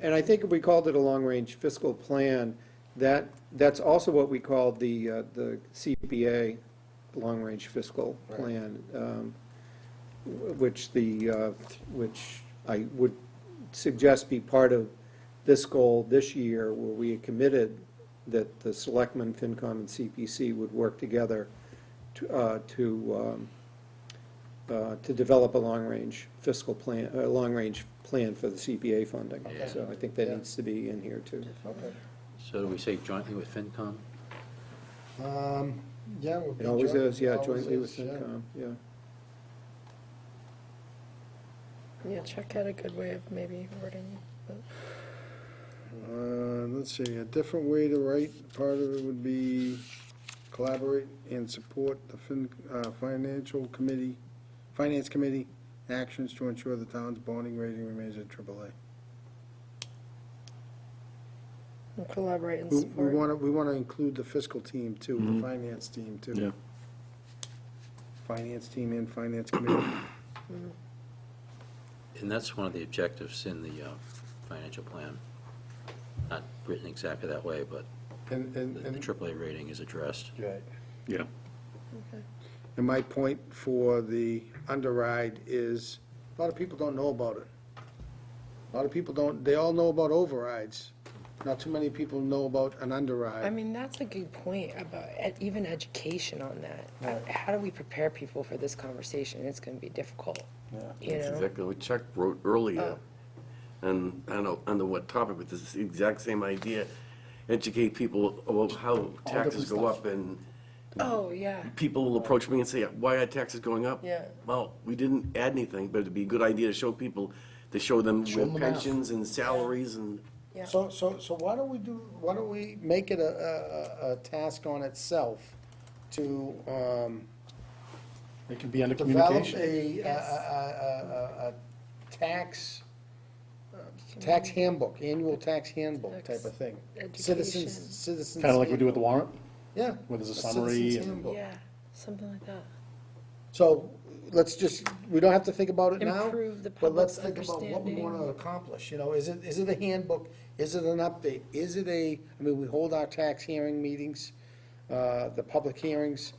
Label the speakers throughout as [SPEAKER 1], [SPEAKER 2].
[SPEAKER 1] And I think if we called it a long-range fiscal plan, that, that's also what we called the, uh, the CPA, long-range fiscal
[SPEAKER 2] Right.
[SPEAKER 1] plan, um, wh- which the, uh, which I would suggest be part of this goal this year, where we had committed that the selectmen, FinCom, and CPC would work together to, uh, to, um, uh, to develop a long-range fiscal plan, a long-range plan for the CPA funding.
[SPEAKER 2] Okay.
[SPEAKER 1] So I think that
[SPEAKER 2] Yeah.
[SPEAKER 1] needs to be in here too.
[SPEAKER 2] Okay.
[SPEAKER 3] So do we say jointly with FinCom?
[SPEAKER 2] Um, yeah, we'll be.
[SPEAKER 1] It always
[SPEAKER 2] joint-
[SPEAKER 1] is, yeah,
[SPEAKER 2] always
[SPEAKER 1] jointly with
[SPEAKER 2] is, yeah.
[SPEAKER 1] FinCom, yeah.
[SPEAKER 4] Yeah, Chuck had a good way of maybe wording it.
[SPEAKER 2] Uh, let's see, a different way to write, part of it would be collaborate and support the fin, uh, financial committee, finance committee actions to ensure the town's bonding rating remains at AAA.
[SPEAKER 4] and Collaborate and
[SPEAKER 2] We, we
[SPEAKER 4] support.
[SPEAKER 2] wanna, we wanna include the fiscal team too,
[SPEAKER 1] Mm-hmm.
[SPEAKER 2] the finance team too.
[SPEAKER 5] Yeah.
[SPEAKER 2] Finance team and finance committee.
[SPEAKER 3] And that's one of the objectives in the uh, financial plan. Not written exactly that way, but
[SPEAKER 2] And,
[SPEAKER 3] the
[SPEAKER 2] and,
[SPEAKER 3] the
[SPEAKER 2] and.
[SPEAKER 3] AAA rating is addressed.
[SPEAKER 2] Right.
[SPEAKER 5] Yeah.
[SPEAKER 4] Okay.
[SPEAKER 2] And my point for the underride is, a lot of people don't know about it. A lot of people don't, they all know about overrides. Not too many people know about an
[SPEAKER 4] I
[SPEAKER 2] underride.
[SPEAKER 4] mean, that's a good point about ed- even education on that. Uh, How do we prepare people for this conversation? It's going to be difficult, you
[SPEAKER 6] That's
[SPEAKER 4] know?
[SPEAKER 6] exactly what Chuck wrote earlier.
[SPEAKER 2] Oh.
[SPEAKER 6] And I don't know under what topic, but this is the exact same idea. Educate people about how taxes go up and
[SPEAKER 4] Oh, yeah.
[SPEAKER 6] people will approach me and say, why are taxes going up?
[SPEAKER 4] Yeah.
[SPEAKER 6] Well, we didn't add anything, but it'd be a good idea to show people, to show them
[SPEAKER 2] Show them
[SPEAKER 6] with
[SPEAKER 2] the math.
[SPEAKER 6] pensions and salaries and.
[SPEAKER 4] Yeah.
[SPEAKER 2] So, so, so why don't we do, why don't we make it a, a, a- a task on itself to, um,
[SPEAKER 5] It can be under
[SPEAKER 2] develop
[SPEAKER 5] communication.
[SPEAKER 2] a, a, a, a, a, a tax,
[SPEAKER 4] Uh,
[SPEAKER 2] tax handbook, annual tax handbook type of thing. Citizens,
[SPEAKER 4] Education.
[SPEAKER 2] citizens.
[SPEAKER 5] Kind of like we do with the
[SPEAKER 2] handbook.
[SPEAKER 5] warrant.
[SPEAKER 2] Yeah.
[SPEAKER 5] where there's a
[SPEAKER 2] citizen's
[SPEAKER 5] summary and-
[SPEAKER 2] handbook.
[SPEAKER 4] Yeah, something like that.
[SPEAKER 2] So, let's just, we don't have to think about it now.
[SPEAKER 4] Improve the
[SPEAKER 2] But let's think
[SPEAKER 4] public's
[SPEAKER 2] about what we wanna
[SPEAKER 4] understanding.
[SPEAKER 2] accomplish, you know, is it, is it a handbook, is it an update, is it a, I mean, we hold our tax hearing meetings, uh, the public hearings.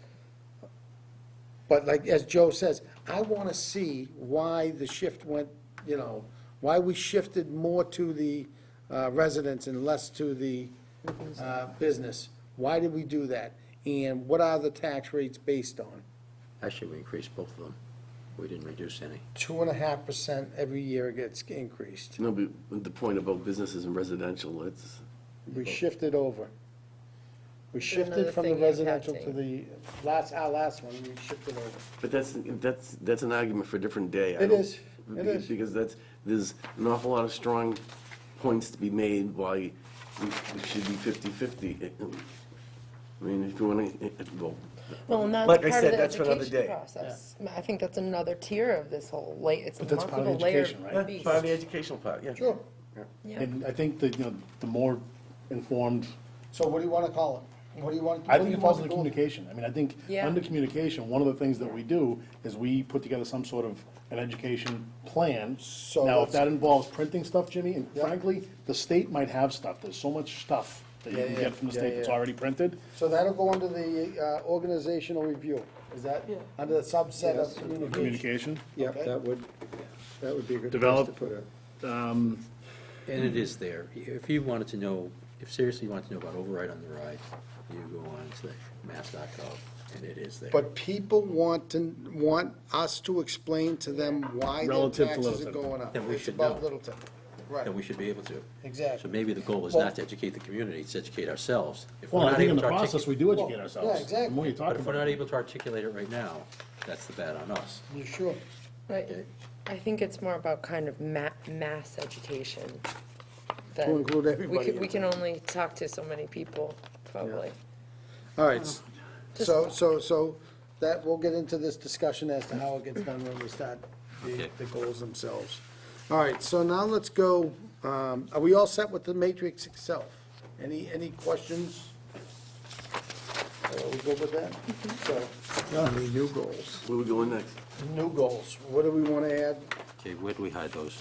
[SPEAKER 2] But like, as Joe says, I wanna see why the shift went, you know, why we shifted more to the uh, residents and less to the uh, business. Why did we do that? And what are the tax rates based on?
[SPEAKER 3] Actually, we increased both of them. We didn't reduce any.
[SPEAKER 2] two and a half percent every year gets increased.
[SPEAKER 6] No, but the point about businesses and residential, it's,
[SPEAKER 2] We shifted over. We shifted
[SPEAKER 4] another
[SPEAKER 2] from the
[SPEAKER 4] thing you're
[SPEAKER 2] residential to
[SPEAKER 4] passing.
[SPEAKER 2] the, last, our last one, we shifted over.
[SPEAKER 6] but that's, that's, that's an argument for a different day. I
[SPEAKER 2] It
[SPEAKER 6] don't-
[SPEAKER 2] is. It is.
[SPEAKER 6] Because that's, there's an awful lot of strong points to be made why it it should be fifty-fifty. I mean, if you want to, well,
[SPEAKER 4] Well, and
[SPEAKER 6] Like
[SPEAKER 4] that's
[SPEAKER 6] I
[SPEAKER 4] part of
[SPEAKER 6] said,
[SPEAKER 4] the
[SPEAKER 6] that's for another
[SPEAKER 4] education
[SPEAKER 6] day.
[SPEAKER 4] process. I think that's another tier of this whole, la- it's
[SPEAKER 5] that's part of
[SPEAKER 4] multiple
[SPEAKER 5] the
[SPEAKER 4] layer
[SPEAKER 5] education, right?
[SPEAKER 4] beast.
[SPEAKER 6] part of the educational part, yeah.
[SPEAKER 2] Sure.
[SPEAKER 4] Yeah.
[SPEAKER 5] And I think that, you know, the more informed,
[SPEAKER 2] So what do you want to call it? What do you want?
[SPEAKER 5] I
[SPEAKER 2] what do
[SPEAKER 5] think
[SPEAKER 2] you
[SPEAKER 5] it falls
[SPEAKER 2] want
[SPEAKER 5] under
[SPEAKER 2] to call
[SPEAKER 5] communication. I mean, I think,
[SPEAKER 4] Yeah.
[SPEAKER 5] under communication, one of the things that we do is we put together some sort of an education plan.
[SPEAKER 2] So
[SPEAKER 5] Now, if
[SPEAKER 2] let's-
[SPEAKER 5] that involves printing stuff, Jimmy, and
[SPEAKER 2] Yeah.
[SPEAKER 5] frankly, the state might have stuff. There's so much stuff that
[SPEAKER 2] Yeah,
[SPEAKER 5] you can
[SPEAKER 2] yeah,
[SPEAKER 5] get from the
[SPEAKER 2] yeah,
[SPEAKER 5] state that's
[SPEAKER 2] yeah.
[SPEAKER 5] already printed.
[SPEAKER 2] So that'll go under the uh, organizational review. Is that under the subset of communication?
[SPEAKER 5] Communication,
[SPEAKER 1] Yep,
[SPEAKER 2] Okay.
[SPEAKER 1] that would, that would be a good place to
[SPEAKER 5] Develop-
[SPEAKER 1] put it.
[SPEAKER 3] And it is there. If you wanted to know, if seriously you wanted to know about override on the ride, you go on to mass.gov, and it is there.
[SPEAKER 2] But people want to, want us to explain to them why their
[SPEAKER 5] Relative to
[SPEAKER 2] taxes are
[SPEAKER 5] Littleton.
[SPEAKER 2] going up.
[SPEAKER 3] Then we
[SPEAKER 2] It's
[SPEAKER 3] should
[SPEAKER 2] about
[SPEAKER 3] know.
[SPEAKER 2] Littleton. Right.
[SPEAKER 3] And we should be able to.
[SPEAKER 2] Exactly.
[SPEAKER 3] So maybe the goal is
[SPEAKER 2] Well-
[SPEAKER 3] not to educate the community, it's to educate ourselves. If we're
[SPEAKER 5] Well, I
[SPEAKER 3] not
[SPEAKER 5] think in
[SPEAKER 3] able
[SPEAKER 5] the
[SPEAKER 3] to articulate-
[SPEAKER 5] process, we do educate
[SPEAKER 2] Well,
[SPEAKER 5] ourselves.
[SPEAKER 2] yeah,
[SPEAKER 5] The more
[SPEAKER 2] exactly.
[SPEAKER 5] you talk
[SPEAKER 3] But if we're
[SPEAKER 5] about
[SPEAKER 3] not
[SPEAKER 5] it.
[SPEAKER 3] able to articulate it right now, that's the bad on us.
[SPEAKER 2] You sure?
[SPEAKER 4] Right, I think it's more about kind of ma- mass education. that
[SPEAKER 2] To include
[SPEAKER 4] We
[SPEAKER 2] everybody
[SPEAKER 4] can,
[SPEAKER 2] in
[SPEAKER 4] we can only talk to so many people, probably.
[SPEAKER 2] All right, s- so, so, so that, we'll get into this discussion as to how it gets done when we start the,
[SPEAKER 3] Okay.
[SPEAKER 2] the goals themselves. All right, so now let's go, um, are we all set with the matrix itself? Any, any questions? Are we good with that? So, any new goals?
[SPEAKER 6] Where we going next?
[SPEAKER 2] New goals, what do we wanna add?
[SPEAKER 3] Okay, where do we hide those?